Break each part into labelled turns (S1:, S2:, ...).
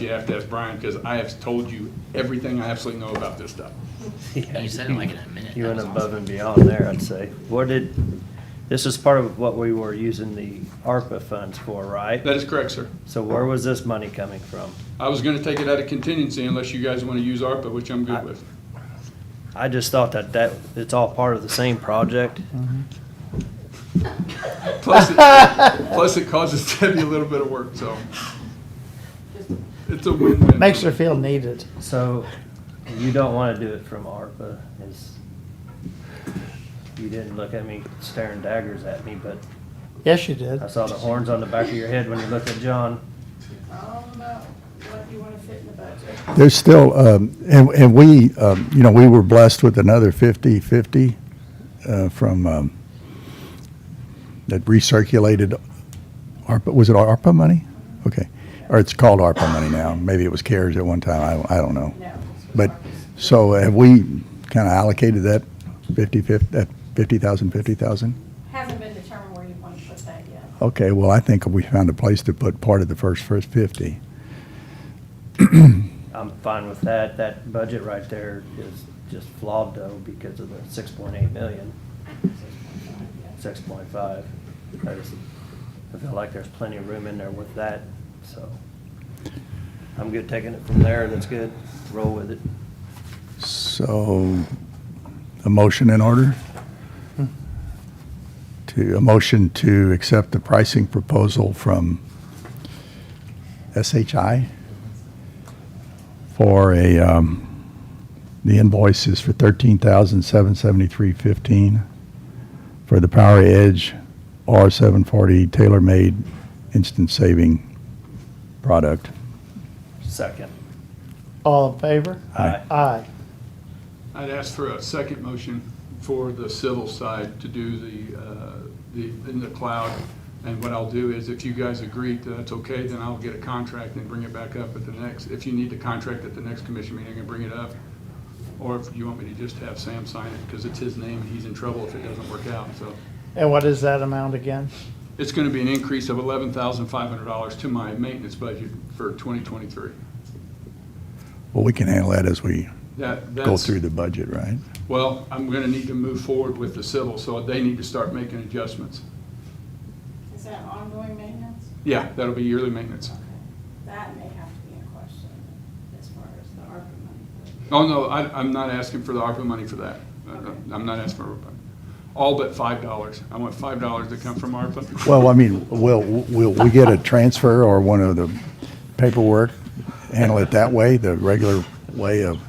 S1: You have to ask Brian, because I have told you everything I absolutely know about this stuff.
S2: You said it like in a minute.
S3: You went
S2: That was
S3: above
S2: awesome.
S3: and beyond there, I'd say. What did, this is part of what we were using the ARPA funds for, right?
S1: That is correct, sir.
S3: So where was this money coming from?
S1: I was gonna take it out of contingency unless you guys want to use ARPA, which I'm good with.
S3: I just thought that that, it's all part of the same project.
S1: Plus, it- plus it causes Debbie a little bit of work, so it's a win-win.
S4: Makes her feel needed.
S3: So you don't want to do it from ARPA is, you didn't look at me staring daggers at me, but
S4: Yes, you did.
S3: I saw the horns on the back of your head when you looked at John.
S5: all about what you want to fit in the budget.
S6: There's still, um, and, and we, um, you know, we were blessed with another 50/50 uh, from, um, that recirculated ARPA, was it ARPA money? Okay. Or it's called ARPA money now. Maybe it was CARES at one time. I, don't- I don't know.
S5: No.
S6: But, so have we kind of allocated that 50, 50, that 50,000, 50,000?
S5: Hasn't been determined where you want to put that yet.
S6: Okay, well, I think we found a place to put part of the first, first 50.
S3: I'm fine with that. That budget right there is just flawed though because of the six point eight million. six point five. There's, I feel like there's plenty of room in there with that, so. I'm good taking it from there, that's good, roll with it.
S6: So, a motion in order? To, a motion to accept the pricing proposal from SHI for a, um, the invoice is for thirteen thousand seven seventy-three fifteen for the Power Edge R seven forty tailor-made instant saving product.
S3: Second.
S4: All in favor?
S6: Aye.
S4: Aye.
S1: I'd ask for a second motion for the civil side to do the, uh, the, in the cloud. And what I'll do is if you guys agree that that's okay, then I'll get a contract and bring it back up at the next, if you need the contract at the next commission meeting, I can bring it up. Or if you want me to just have Sam sign it, because it's his name, and he's in trouble if it doesn't work out, so.
S4: And what is that amount again?
S1: It's gonna be an increase of eleven thousand five hundred dollars to my maintenance budget for twenty twenty-three.
S6: Well, we can handle that as we
S1: That,
S6: go
S1: that's,
S6: through the budget, right?
S1: well, I'm gonna need to move forward with the civil, so they need to start making adjustments.
S5: Is that ongoing maintenance?
S1: Yeah, that'll be yearly maintenance.
S5: Okay. That may have to be a question as far as the ARPA money.
S1: Oh, no, I, I'm not asking for the ARPA money for that.
S5: Okay.
S1: I'm not asking for, all but five dollars. I want five dollars to come from ARPA.
S6: Well, I mean, will, will we get a transfer or one of the paperwork, handle it that way, the regular way of,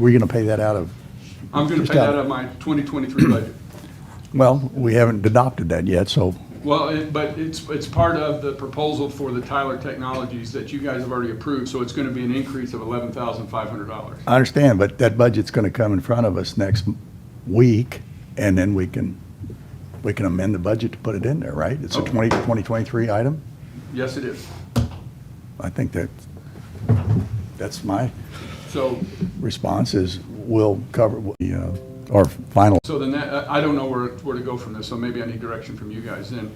S6: we're gonna pay that out of,
S1: I'm gonna
S6: just
S1: pay that
S6: out-
S1: out of my twenty twenty-three budget.
S6: well, we haven't adopted that yet, so,
S1: Well, it, but it's, it's part of the proposal for the Tyler Technologies that you guys have already approved, so it's gonna be an increase of eleven thousand five hundred dollars.
S6: I understand, but that budget's gonna come in front of us next m- week, and then we can, we can amend the budget to put it in there, right? It's a
S1: Okay.
S6: twenty, twenty twenty-three item?
S1: Yes, it is.
S6: I think that, that's my
S1: So,
S6: response is, we'll cover, the, uh, our final
S1: so then that, I I don't know where, where to go from this, so maybe I need direction from you guys then.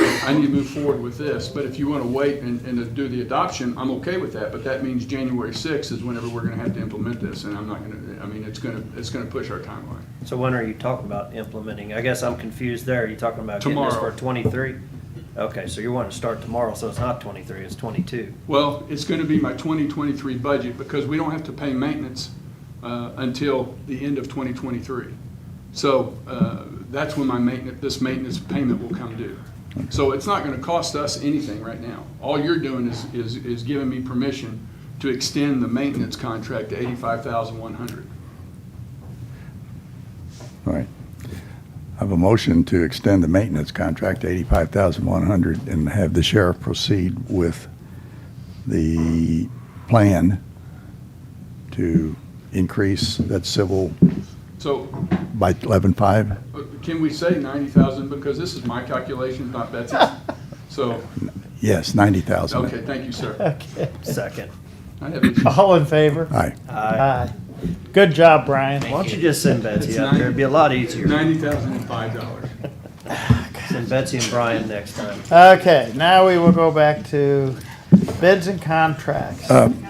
S1: I need to move forward with this, but if you wanna wait and, and to do the adoption, I'm okay with that, but that means January sixth is whenever we're gonna have to implement this, and I'm not gonna, I mean, it's gonna, it's gonna push our timeline.
S3: So when are you talking about implementing? I guess I'm confused there, are you talking about getting this
S1: Tomorrow.
S3: for twenty-three? Okay, so you want to start tomorrow, so it's not twenty-three, it's twenty-two.
S1: Well, it's gonna be my twenty twenty-three budget, because we don't have to pay maintenance, uh, until the end of twenty twenty-three. So, uh, that's when my maintenance, this maintenance payment will come due. So it's not gonna cost us anything right now. All you're doing is, is, is giving me permission to extend the maintenance contract to eighty-five thousand one hundred.
S6: All right. I have a motion to extend the maintenance contract to eighty-five thousand one hundred and have the sheriff proceed with the plan to increase that civil
S1: So,
S6: by eleven-five?
S1: uh, can we say ninety thousand, because this is my calculation, not Betsy's? So,
S6: Yes, ninety thousand.
S1: okay, thank you, sir.
S4: Okay.
S3: Second.
S1: I have issues.
S4: All in favor?
S6: Aye.
S3: Aye.
S4: Aye. Good job, Brian.
S3: Why don't you just send Betsy out there, it'd be a lot easier.
S1: Ninety thousand and five dollars.
S3: Send Betsy and Brian next time.
S4: Okay, now we will go back to bids and contracts.
S6: Um,